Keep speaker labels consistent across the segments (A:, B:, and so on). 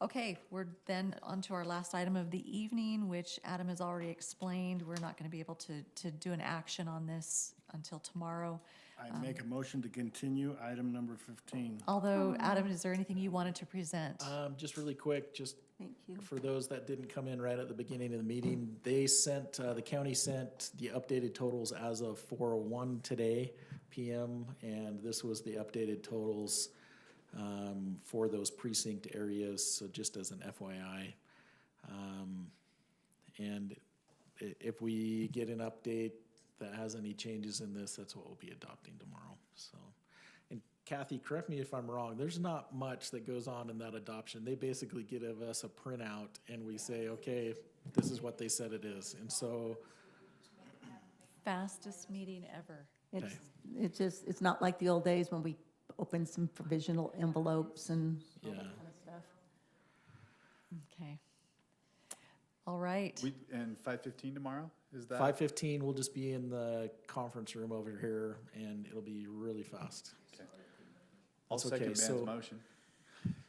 A: Okay, we're then on to our last item of the evening, which Adam has already explained. We're not going to be able to, to do an action on this until tomorrow.
B: I make a motion to continue item number 15.
A: Although, Adam, is there anything you wanted to present?
B: Uh,
C: Um, just really quick, just
D: Thank you.
C: for those that didn't come in right at the beginning of the meeting, they sent, uh, the county sent the updated totals as of four oh one today PM, and this was the updated totals, um, for those precinct areas, so just as an FYI. Um, and i- if we get an update that has any changes in this, that's what we'll be adopting tomorrow, so. And Kathy, correct me if I'm wrong, there's not much that goes on in that adoption. They basically give us a printout and we say, okay, this is what they said it is. And so,
A: Fastest meeting ever.
D: It's, it's just, it's not like the old days when we opened some provisional envelopes and all that
C: Yeah.
D: kind of stuff.
A: Okay. All right.
E: We, and five fifteen tomorrow, is that?
C: five fifteen, we'll just be in the conference room over here and it'll be really fast.
E: Okay. I'll
C: That's
E: second
C: okay,
E: Van's
C: so-
E: motion.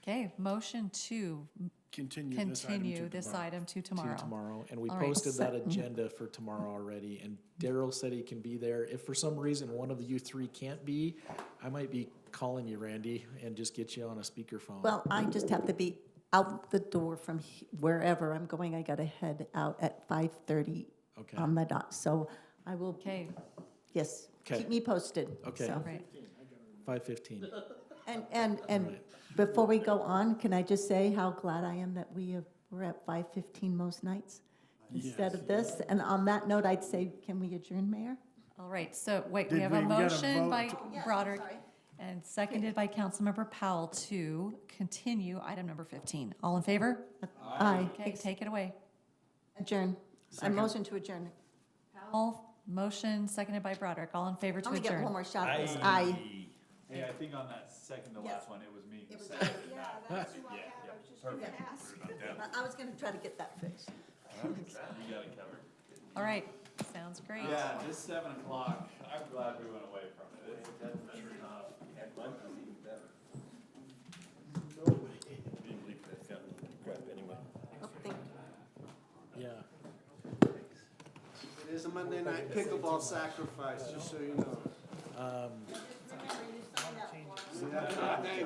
A: Okay, motion to
B: Continue this item
A: continue
B: to
A: this
B: tomorrow.
A: item to
C: to
A: tomorrow.
C: tomorrow, and we
A: All right,
C: posted that
A: so-
C: agenda for tomorrow already, and Daryl said he can be there. If for some reason one of you three can't be, I might be calling you, Randy, and just get you on a speakerphone.
D: Well, I just have to be out the door from he- wherever I'm going. I gotta head out at five thirty
C: Okay,
D: on the dot, so I will,
A: Okay,
D: yes,
C: Okay.
D: keep me posted.
C: Okay.
D: so.
A: right.
C: five fifteen.
D: And, and, and before we go on, can I just say how glad I am that we have, we're at five fifteen most nights instead of this? And on that note, I'd say, can we adjourn, Mayor?
A: All right, so wait, we
B: Did
A: have a
B: we get a
A: motion
B: vote?
A: by
B: Oh,
A: Broderick and seconded by Councilmember Powell to continue item number 15. All in favor?
D: Aye.
A: Okay, take it away.
D: Adjourn. I motion to adjourn.
A: Powell, motion seconded by Broderick. All in favor to
D: I'm gonna get one
A: adjourn?
D: more shot at this. Aye.
E: Hey, I think on that second to
D: Yes.
E: last one, it was me.
D: I was gonna try to get that fixed.
E: You got it covered.
A: All right, sounds great.
E: Yeah, this seven o'clock, I'm glad we went away from it. It's definitely not.
D: Oh, thank you.
C: Yeah,
F: It is a Monday night pickleball sacrifice, just so you know.
C: let me,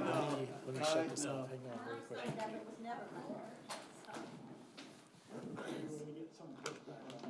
C: let me shut this off, hang on real quick.